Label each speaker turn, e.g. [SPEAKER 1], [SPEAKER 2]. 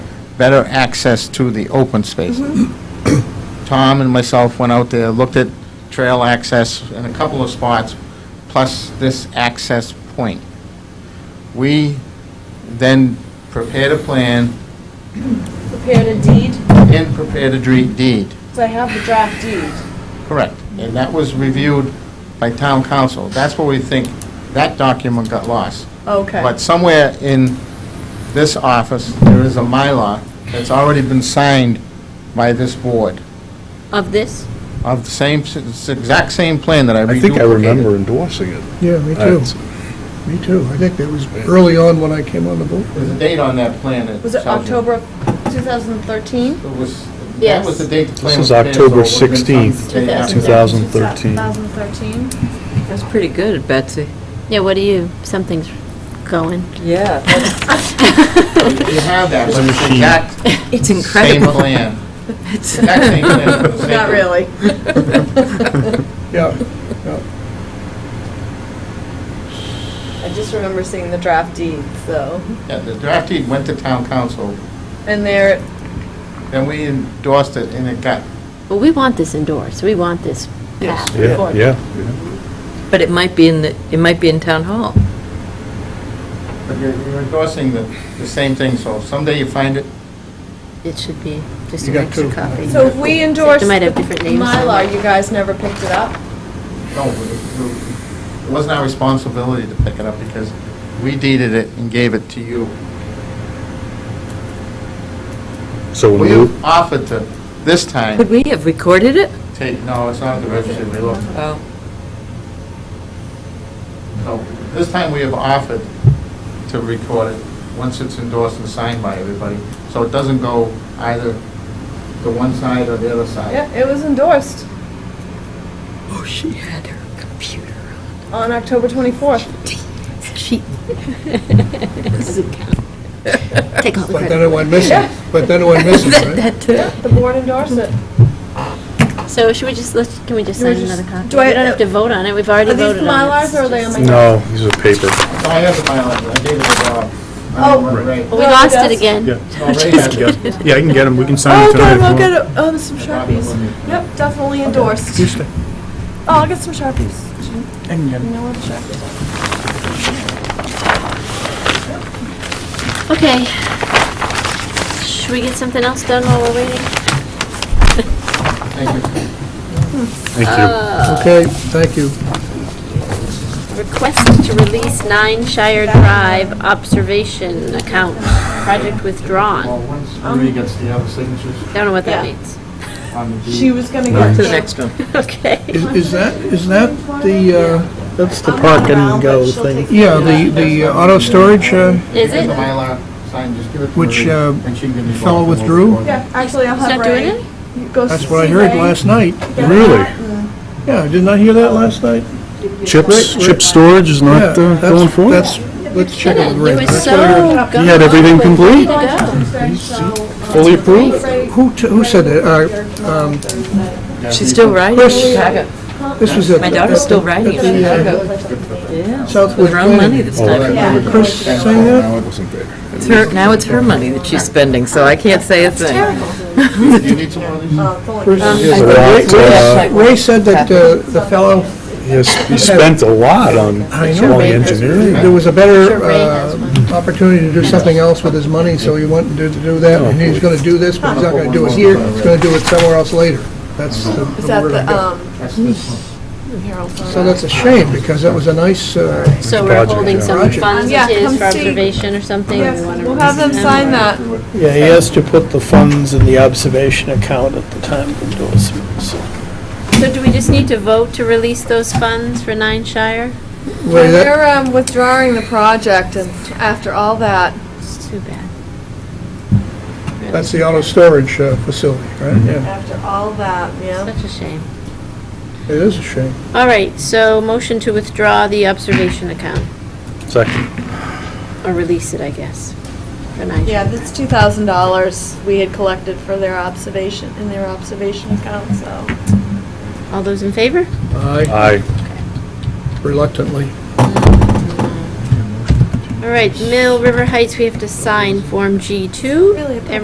[SPEAKER 1] better access to the open space. Tom and myself went out there, looked at trail access in a couple of spots, plus this access point. We then prepared a plan
[SPEAKER 2] prepared a deed,
[SPEAKER 1] and prepared a dre- deed.
[SPEAKER 2] because I have the draft deed.
[SPEAKER 1] Correct. And that was reviewed by town council. That's where we think that document got lost.
[SPEAKER 2] Okay.
[SPEAKER 1] But somewhere in this office, there is a Mylar that's already been signed by this board
[SPEAKER 3] Of this?
[SPEAKER 1] of the same, it's the exact same plan that I
[SPEAKER 4] I
[SPEAKER 1] reduplicated.
[SPEAKER 4] think I remember endorsing it.
[SPEAKER 5] Yeah, me
[SPEAKER 4] Uh,
[SPEAKER 5] too, me too. I think that was early on when I came on the board.
[SPEAKER 1] There's a date on that plan. that
[SPEAKER 2] Was it
[SPEAKER 1] tells you.
[SPEAKER 2] October 2013?
[SPEAKER 1] It was, that
[SPEAKER 3] Yes.
[SPEAKER 1] was the date the plan
[SPEAKER 4] This
[SPEAKER 1] was prepared,
[SPEAKER 4] is
[SPEAKER 1] so it
[SPEAKER 4] October
[SPEAKER 1] would've been some
[SPEAKER 4] 16th,
[SPEAKER 1] day after.
[SPEAKER 4] 2013.
[SPEAKER 2] 2013.
[SPEAKER 6] That's pretty good, Betsy.
[SPEAKER 3] Yeah, what do you, something's going.
[SPEAKER 6] Yeah.
[SPEAKER 1] You have that, but it's the exact
[SPEAKER 6] It's
[SPEAKER 1] same
[SPEAKER 6] incredible.
[SPEAKER 1] plan. Exact same plan. for the same
[SPEAKER 2] Not
[SPEAKER 1] group.
[SPEAKER 2] really.
[SPEAKER 5] Yeah,
[SPEAKER 6] Oh,
[SPEAKER 2] I just remember seeing the draft deed, so.
[SPEAKER 1] Yeah, the draft deed went to town council,
[SPEAKER 2] And there,
[SPEAKER 1] then we endorsed it, and it got,
[SPEAKER 3] Well, we want this endorsed, we want this passed. We
[SPEAKER 4] Yeah,
[SPEAKER 3] want-
[SPEAKER 4] yeah.
[SPEAKER 6] But it might be in the, it might be in town hall.
[SPEAKER 1] but you're you're endorsing the, the same thing, so someday you find it,
[SPEAKER 3] It should be just
[SPEAKER 5] You
[SPEAKER 3] an
[SPEAKER 5] got
[SPEAKER 3] extra
[SPEAKER 5] two.
[SPEAKER 3] copy.
[SPEAKER 2] so if we endorsed
[SPEAKER 3] They might have
[SPEAKER 2] the
[SPEAKER 3] different names on
[SPEAKER 2] Mylar,
[SPEAKER 3] it.
[SPEAKER 2] you guys never picked it up?
[SPEAKER 1] no, it- it wasn't our responsibility to pick it up, because we deeded it and gave it to you.
[SPEAKER 4] So
[SPEAKER 1] We
[SPEAKER 4] when we,
[SPEAKER 1] offered to, this
[SPEAKER 6] Could
[SPEAKER 1] time,
[SPEAKER 6] we have recorded it?
[SPEAKER 1] take, no, it's not at the registry, we looked.
[SPEAKER 6] Oh.
[SPEAKER 1] No, This time we have offered to record it, once it's endorsed and signed by everybody, so it doesn't go either to one side or the other side.
[SPEAKER 2] Yeah, it was endorsed
[SPEAKER 6] Oh, she had her computer.
[SPEAKER 2] on October 24th.
[SPEAKER 3] She. Doesn't count. Take all the
[SPEAKER 5] but then it
[SPEAKER 3] credit.
[SPEAKER 5] went missing, but then it went missing,
[SPEAKER 6] That,
[SPEAKER 5] right?
[SPEAKER 6] that, too.
[SPEAKER 2] The board endorsed it.
[SPEAKER 3] So should we just, let's, can we just
[SPEAKER 2] You were
[SPEAKER 3] sign
[SPEAKER 2] just-
[SPEAKER 3] another copy?
[SPEAKER 2] do I-
[SPEAKER 3] We don't have to vote on it, we've already
[SPEAKER 2] Are these
[SPEAKER 3] voted on it.
[SPEAKER 2] Mylars or are they on my?
[SPEAKER 4] no, these are paper.
[SPEAKER 1] No, I have the bylaws, I gave it to Rob. I don't
[SPEAKER 2] Oh.
[SPEAKER 1] remember, Ray.
[SPEAKER 3] Well,
[SPEAKER 2] Well,
[SPEAKER 3] we
[SPEAKER 2] it
[SPEAKER 3] lost
[SPEAKER 2] does-
[SPEAKER 3] it again.
[SPEAKER 4] Yeah.
[SPEAKER 1] No, Ray has it.
[SPEAKER 4] Yeah, I can get them, we can sign
[SPEAKER 2] Oh,
[SPEAKER 4] them
[SPEAKER 2] God,
[SPEAKER 4] tonight.
[SPEAKER 2] I'll
[SPEAKER 4] if you
[SPEAKER 2] get,
[SPEAKER 4] want.
[SPEAKER 2] a- um, some Sharpies. Yep, definitely endorsed.
[SPEAKER 5] Tuesday.
[SPEAKER 2] Oh, I'll get some Sharpies.
[SPEAKER 5] I can get
[SPEAKER 2] You
[SPEAKER 5] it.
[SPEAKER 2] know where the Sharpies
[SPEAKER 3] Okay. Should we get something else done while we're waiting?
[SPEAKER 1] Thank you.
[SPEAKER 4] Thank
[SPEAKER 5] Okay, thank you.
[SPEAKER 3] Request to release nine Shire Drive observation account, project
[SPEAKER 1] Well,
[SPEAKER 3] withdrawn.
[SPEAKER 1] once Marie gets the other signatures
[SPEAKER 3] Don't know what that
[SPEAKER 2] Yeah.
[SPEAKER 3] means.
[SPEAKER 1] on the
[SPEAKER 2] are? She
[SPEAKER 1] deed,
[SPEAKER 2] was gonna
[SPEAKER 6] Go
[SPEAKER 2] get.
[SPEAKER 6] to the next one.
[SPEAKER 3] Okay.
[SPEAKER 5] Is is that, is that the, uh,
[SPEAKER 4] That's the
[SPEAKER 2] park and go thing.
[SPEAKER 5] yeah, the, the uh, auto storage, uh,
[SPEAKER 1] Here's
[SPEAKER 3] Is
[SPEAKER 1] the
[SPEAKER 3] it?
[SPEAKER 1] Mylar, sign, just give it to
[SPEAKER 5] Which,
[SPEAKER 1] Marie,
[SPEAKER 5] uh,
[SPEAKER 1] and she can give me
[SPEAKER 5] fellow
[SPEAKER 1] both of them
[SPEAKER 5] withdrew?
[SPEAKER 1] over.
[SPEAKER 2] Yeah, actually, I'll
[SPEAKER 3] He's
[SPEAKER 2] have
[SPEAKER 3] not doing
[SPEAKER 2] Ray.
[SPEAKER 3] it?
[SPEAKER 2] You go
[SPEAKER 5] that's what I
[SPEAKER 2] see
[SPEAKER 5] heard
[SPEAKER 2] Ray.
[SPEAKER 5] last night.
[SPEAKER 2] Get
[SPEAKER 4] Really?
[SPEAKER 2] that and-
[SPEAKER 5] Yeah, did not hear that last night?
[SPEAKER 4] Chips, chip storage is
[SPEAKER 5] Yeah,
[SPEAKER 4] not uh,
[SPEAKER 5] that's-
[SPEAKER 4] going forward?
[SPEAKER 5] That's, let's check it
[SPEAKER 3] It
[SPEAKER 5] with
[SPEAKER 3] was
[SPEAKER 5] Ray.
[SPEAKER 3] so
[SPEAKER 4] He had everything complete?
[SPEAKER 2] Oh.
[SPEAKER 4] Fully approved?
[SPEAKER 5] Who, t- who said that? Uh, um,
[SPEAKER 6] She's still writing.
[SPEAKER 5] Chris.
[SPEAKER 6] My
[SPEAKER 5] This was at.
[SPEAKER 6] daughter's still writing.
[SPEAKER 5] at the, uh,
[SPEAKER 6] Yeah.
[SPEAKER 5] Southwood
[SPEAKER 6] With her own money
[SPEAKER 5] Planning.
[SPEAKER 6] this time.
[SPEAKER 5] Chris sang that?
[SPEAKER 4] No, it wasn't paper.
[SPEAKER 6] It's her, now it's her money that she's spending, so I can't say a thing.
[SPEAKER 1] Do you need some more of these?
[SPEAKER 4] Here's a
[SPEAKER 5] Ray-
[SPEAKER 6] Um,
[SPEAKER 4] lot, uh,
[SPEAKER 5] Ray Ray said that uh, the fellow,
[SPEAKER 4] He has- he spent a lot on
[SPEAKER 5] I know.
[SPEAKER 4] on engineering.
[SPEAKER 5] there was a
[SPEAKER 3] Sure,
[SPEAKER 5] better
[SPEAKER 3] Ray
[SPEAKER 5] uh,
[SPEAKER 3] has
[SPEAKER 5] opportunity to do something else with his money, so he went and did do that, and he's gonna do this, but he's not gonna do it here, he's gonna do it somewhere else later. That's the
[SPEAKER 2] Is
[SPEAKER 5] the
[SPEAKER 2] that
[SPEAKER 5] word I
[SPEAKER 2] the,
[SPEAKER 5] got.
[SPEAKER 2] um,
[SPEAKER 1] That's this
[SPEAKER 2] Harold's on that?
[SPEAKER 5] So that's a shame, because that was a nice, uh,
[SPEAKER 3] So we're
[SPEAKER 4] Project,
[SPEAKER 3] holding
[SPEAKER 4] yeah.
[SPEAKER 3] some
[SPEAKER 5] Project.
[SPEAKER 3] funds
[SPEAKER 2] Yeah,
[SPEAKER 3] of his
[SPEAKER 2] come
[SPEAKER 3] for
[SPEAKER 2] see.
[SPEAKER 3] observation or something.
[SPEAKER 2] Yes,
[SPEAKER 3] We wanna
[SPEAKER 2] we'll have them
[SPEAKER 3] release
[SPEAKER 2] sign that.
[SPEAKER 1] one.
[SPEAKER 7] Yeah, he has to put the funds in the observation account at the time of endorsement, so.
[SPEAKER 3] So do we just need to vote to release those funds for Nine Shire?
[SPEAKER 5] way
[SPEAKER 2] When
[SPEAKER 5] that,
[SPEAKER 2] You're um, withdrawing the project and after all that,
[SPEAKER 3] It's too bad.
[SPEAKER 5] that's the auto storage uh, facility, right? Yeah,
[SPEAKER 2] after all that, yeah.
[SPEAKER 3] Such a shame.
[SPEAKER 5] it is a shame.
[SPEAKER 3] All right, so motion to withdraw the observation account,
[SPEAKER 4] Second.
[SPEAKER 3] or release it, I guess, for Nine Shire.
[SPEAKER 2] Yeah, that's two thousand dollars we had collected for their observation, in their observation account, so.
[SPEAKER 3] All those in favor?
[SPEAKER 5] I
[SPEAKER 4] Aye.
[SPEAKER 5] reluctantly.
[SPEAKER 3] All right, Mill River Heights, we have to sign Form G2.
[SPEAKER 2] Really, I thought